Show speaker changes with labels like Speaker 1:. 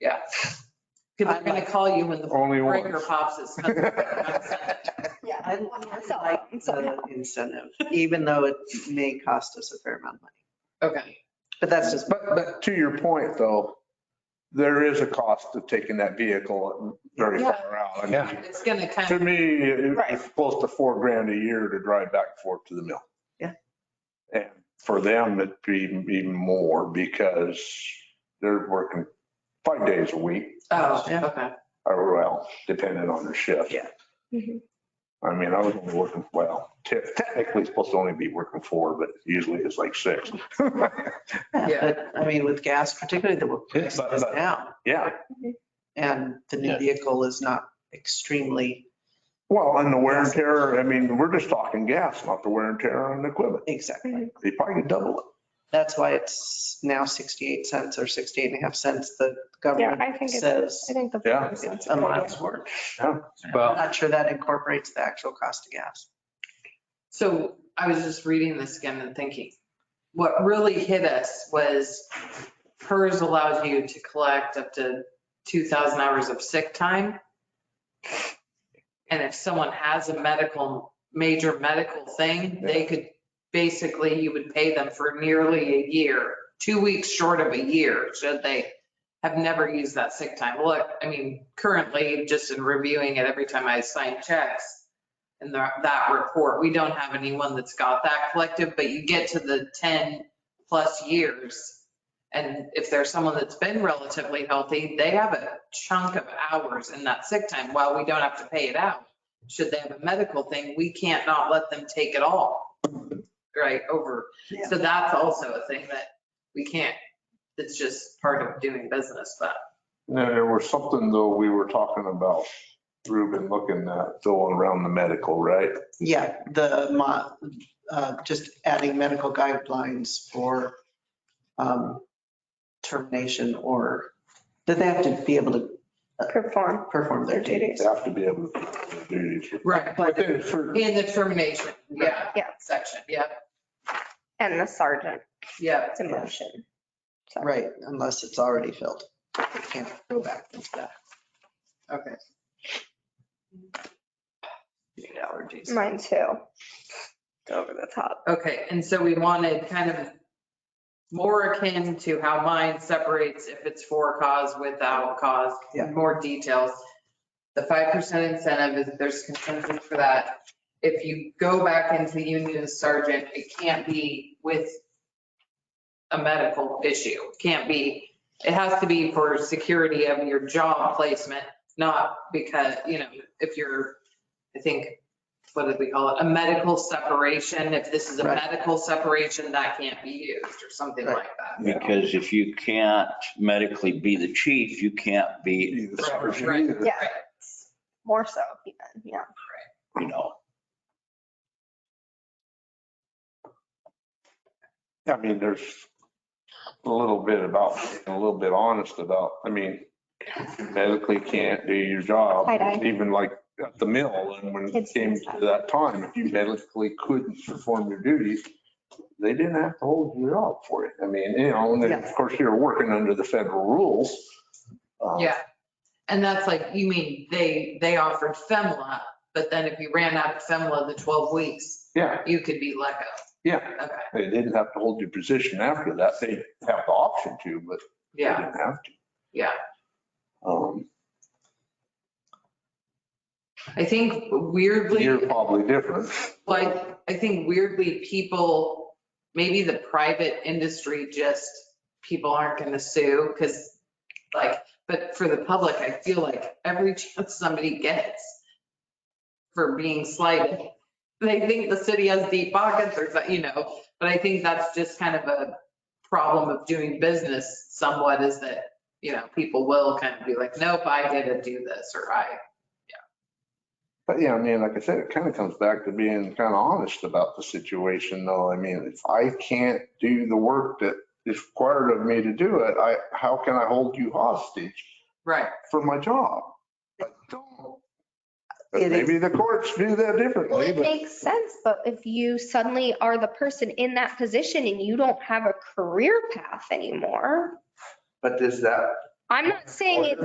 Speaker 1: Because I'm going to call you when the
Speaker 2: Only one.
Speaker 1: breaker pops. It's not-
Speaker 3: Yeah,
Speaker 4: I
Speaker 3: I'm on your cell
Speaker 4: like
Speaker 3: phone, so-
Speaker 4: the incentive, even though it may cost us a fair amount of money.
Speaker 1: Okay.
Speaker 4: But that's just,
Speaker 2: But, but to your point though, there is a cost of taking that vehicle very far out. I mean,
Speaker 5: Yeah.
Speaker 1: It's going to kind
Speaker 2: To
Speaker 1: of,
Speaker 2: me, it-
Speaker 3: Right.
Speaker 2: it's close to four grand a year to drive back and forth to the mill.
Speaker 4: Yeah.
Speaker 2: And for them, it'd be even more because they're working five days a week,
Speaker 1: oh, okay.
Speaker 2: or well, depending on their shift.
Speaker 4: Yeah.
Speaker 3: Mhm.
Speaker 2: I mean, I was only working, well, te- technically supposed to only be working four, but usually it's like six.
Speaker 4: yeah,
Speaker 1: Yeah.
Speaker 4: but I mean, with gas particularly, the price
Speaker 2: but-
Speaker 4: is
Speaker 2: but-
Speaker 4: down
Speaker 2: Yeah.
Speaker 4: and the new
Speaker 5: Yeah.
Speaker 4: vehicle is not extremely
Speaker 2: Well, and the wear and tear, I mean, we're just talking gas, not the wear and tear on the equipment.
Speaker 4: exactly.
Speaker 2: They probably could double it.
Speaker 4: That's why it's now 68 cents or 68 and a half cents the
Speaker 3: Yeah,
Speaker 4: government
Speaker 3: I think it's, I
Speaker 4: says
Speaker 3: think the.
Speaker 2: Yeah.
Speaker 3: four cents
Speaker 4: it's
Speaker 3: is
Speaker 4: a
Speaker 3: good.
Speaker 4: mile's worth. I'm
Speaker 5: Well,
Speaker 4: not sure that incorporates the actual cost of gas.
Speaker 1: So I was just reading this again and thinking, what really hit us was hers allows you to collect up to 2,000 hours of sick time. And if someone has a medical, major medical thing, they could, basically, you would pay them for nearly a year, two weeks short of a year, should they have never used that sick time. Look, I mean, currently, just in reviewing it, every time I sign checks, in the- that report. We don't have anyone that's got that collective, but you get to the 10 plus years. And if there's someone that's been relatively healthy, they have a chunk of hours in that sick time while we don't have to pay it out. Should they have a medical thing, we can't not let them take it all, right, over.
Speaker 4: Yeah.
Speaker 1: So that's also a thing that we can't, it's just part of doing business, but
Speaker 2: Now, there was something though, we were talking about, Ruben, looking at going around the medical, right?
Speaker 4: Yeah, the, mo- uh, just adding medical guidelines for um, termination or that they have to be able to
Speaker 3: Perform
Speaker 4: perform
Speaker 3: their
Speaker 4: their duty.
Speaker 3: duties.
Speaker 2: They have to be able to do their duties.
Speaker 1: Right.
Speaker 4: But
Speaker 2: Within a certain-
Speaker 1: in the termination, yeah,
Speaker 3: Yeah.
Speaker 1: section, yeah,
Speaker 3: and the sergeant,
Speaker 1: yeah.
Speaker 3: it's a motion. So-
Speaker 4: Right, unless it's already filled. Can't go back into that.
Speaker 1: Okay.
Speaker 4: Food Allergies.
Speaker 3: Mine too. Over the top.
Speaker 1: Okay, and so we wanted kind of more akin to how mine separates if it's for cause, without cause,
Speaker 4: Yeah.
Speaker 1: more details. The five percent incentive is, there's consensus for that. If you go back into the union as sergeant, it can't be with a medical issue. It Can't be, it has to be for security of your job placement, not because, you know, if you're, I think, what did we call it? A medical separation. If this is a
Speaker 4: Right.
Speaker 1: medical separation, that can't be used or something like that.
Speaker 6: Because if you can't medically be the chief, you can't be,
Speaker 2: Either sergeant,
Speaker 1: Right.
Speaker 2: either.
Speaker 3: Yeah, more so even, yeah.
Speaker 6: you know,
Speaker 2: I mean, there's a little bit about, a little bit honest about, I mean, medically can't do your job.
Speaker 3: Tie dye.
Speaker 2: Even like at the mill and when it
Speaker 3: Kids
Speaker 2: came
Speaker 3: use
Speaker 2: to
Speaker 3: that.
Speaker 2: that time, if you medically couldn't perform your duties, they didn't have to hold you job for it. I mean, you know, and then of
Speaker 4: Yes.
Speaker 2: course you're working under the federal rules. Uh,
Speaker 1: Yeah. And that's like, you mean they, they offered FEMLA, but then if you ran out of FEMLA the 12 weeks,
Speaker 2: Yeah,
Speaker 1: you could be let go.
Speaker 2: yeah.
Speaker 1: Okay,
Speaker 2: They didn't have to hold your position after that. They have the option to, but they
Speaker 1: yeah.
Speaker 2: didn't have to.
Speaker 1: Yeah.
Speaker 2: Um,
Speaker 1: I think weirdly.
Speaker 2: You're probably different.
Speaker 1: Like, I think weirdly, people, maybe the private industry, just people aren't gonna sue, because like, but for the public, I feel like every chance somebody gets for being slighted, they think the city has deep pockets or, something, you know, but I think that's just kind of a problem of doing business somewhat is that, you know, people will kind of be like, nope, I didn't do this, or I,
Speaker 2: But yeah, I mean, like I said, it kind of comes back to being kind of honest about the situation though. I mean, if I can't do the work that is required of me to do it, I, how can I hold you hostage
Speaker 1: right,
Speaker 2: for my job? I don't. But
Speaker 4: It is-
Speaker 2: Maybe the courts do that
Speaker 3: Well,
Speaker 2: differently,
Speaker 3: it
Speaker 2: but
Speaker 3: makes sense, but if you suddenly are the person in that position and you don't have a career path anymore,
Speaker 2: but does that
Speaker 3: I'm not saying it's